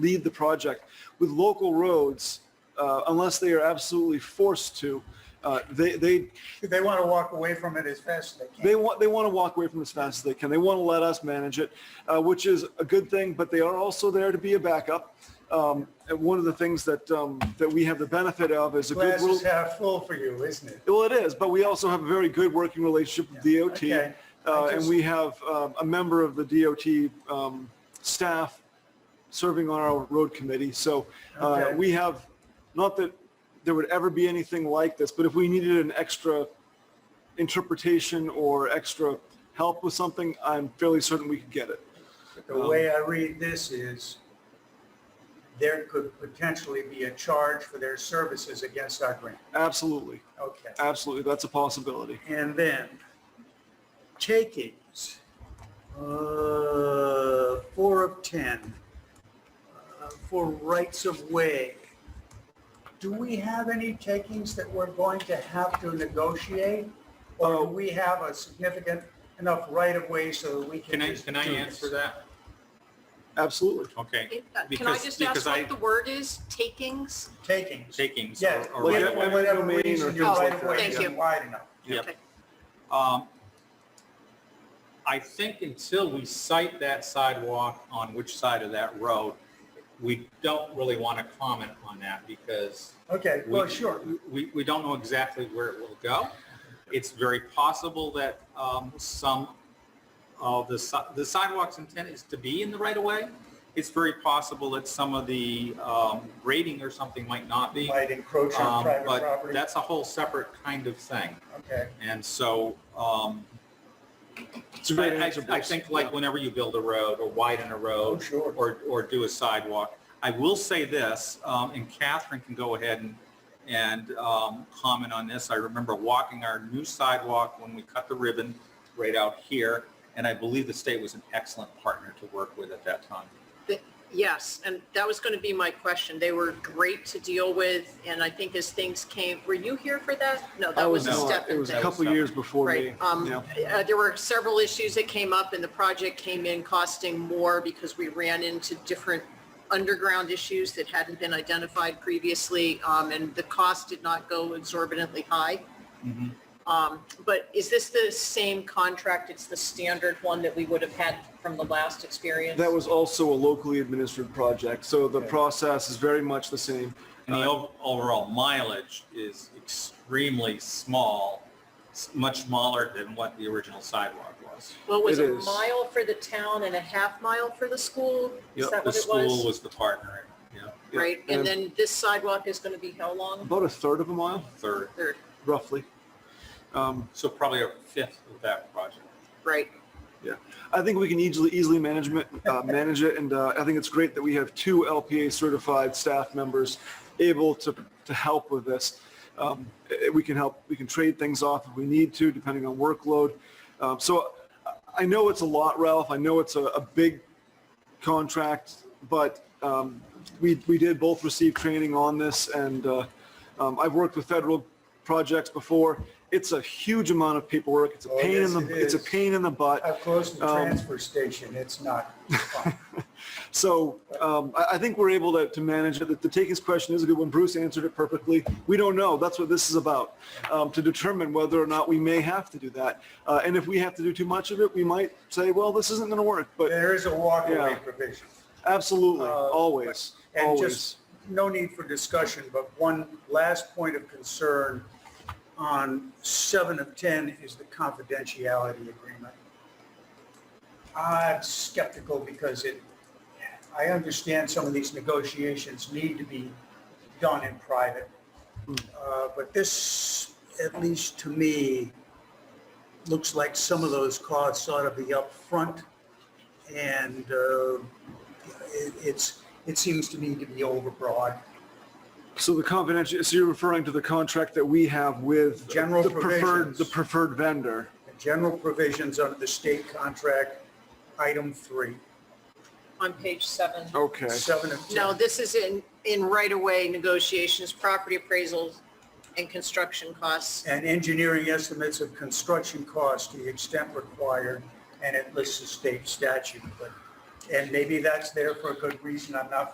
lead the project. With local roads, uh, unless they are absolutely forced to, uh, they, they, They want to walk away from it as fast as they they can. want, they want to walk away from it as fast as they can. They want to let us manage it, uh, which is a good thing, but they are also there to be a backup. Um, and one of the things that, um, that we have the benefit of is a good Glass little. is half full for you, isn't it? Well, it is, but we also have a very good working relationship with DOT. okay. uh, I And just- we have um, a member of the DOT um, staff serving on our road committee. So uh, Okay. we have, not that there would ever be anything like this, but if we needed an extra interpretation or extra help with something, I'm fairly certain we could get it. The way I read this is there could potentially be a charge for their services against our grant. Absolutely, Okay. absolutely. That's a possibility. And then takings, uh, four of 10, uh, for rights of way. Do we have any takings that we're going to have to negotiate? Or do we have a significant enough right of way so that we can? Can I, just can I do this? answer that? Absolutely. Okay. Can I Because- just because ask I- what the word is? Takings? Takings. Takings. Yes, or- or Like right a- of way. whatever whatever domain or reason, your things right like of that. way Thank isn't you. wide enough. Yep. Okay. Um, I think until we cite that sidewalk on which side of that road, we don't really want to comment on that because Okay, we- well, Oh, sure. We, we don't know exactly where it will go. It's very possible that um, some of the, si- the sidewalk's intent is to be in the right of way. It's very possible that some of the um, grading or something might not be. Might encroach on Um, private But property. that's a whole separate kind of thing. Okay. And so um, It's a great I I- answer, I Bruce. think like whenever you build a road or widen a road. Oh, sure. Or, or do a sidewalk. I will say this, um, and Catherine can go ahead and, and um, comment on this. I remember walking our new sidewalk when we cut the ribbon right out here. And I believe the state was an excellent partner to work with at that time. Th- Yes, and that was going to be my question. They were great to deal with, and I think as things came, were you here for that? No, I that was a not. step It in was a thing. couple years before me. Right. Um, Yeah. uh, There were several issues that came up, and the project came in costing more because we ran into different underground issues that hadn't been identified previously, um, and the cost did not go exorbitantly high. Mm-hmm. Um, But is this the same contract? It's the standard one that we would have had from the last experience? That was also a locally administered project, so the Okay. process is very much the same. And the ov- overall mileage is extremely small, s- much smaller than what the original sidewalk was. Well, it was It a is. mile for the town and a half mile for the school? Is Yep, that The what it school was? was the partner, yeah, Yeah, Right, and then this sidewalk is going to be how long? About a third of a mile, third. Third, roughly. Um, So probably a fifth of that project. right. Yeah, I think we can easily, easily management, uh, manage it, and, uh, I think it's great that we have two LPA certified staff members able to, to help with this. Um, eh, we can help, we can trade things off if we need to, depending on workload. Um, so I- I know it's a lot, Ralph, I know it's a, a big contract, but, um, we, we did both receive training on this, and, uh, um, I've worked with federal projects before. It's a huge amount of paperwork, it's a Oh, pain in yes, the, it it's a is. pain in the butt. I've closed the Um, transfer station. It's not fun. So um, I, I think we're able to, to manage it. The, the takings question is a good one. Bruce answered it perfectly. We don't know. That's what this is about, um, to determine whether or not we may have to do that. Uh, and if we have to do too much of it, we might say, well, this isn't going to work. But There is a walkaway Yeah. provision. absolutely, Uh, always, And always. just, no need for discussion, but one last point of concern on seven of 10 is the confidentiality agreement. I'm skeptical because it, I understand some of these negotiations need to be done in private. Hmm. Uh, But this, at least to me, looks like some of those costs ought to be upfront and uh, it- it's, it seems to me to be overbroad. So the confidential, so you're referring to the contract that we have with General the preferred, provisions. the preferred vendor. General provisions under the state contract, item three, on page seven. Okay. seven of 10. No, this is in, in right-of-way negotiations, property appraisals, and construction costs. And engineering estimates of construction costs to the extent required, and it lists the state statute, but, and maybe that's there for a good reason, I'm not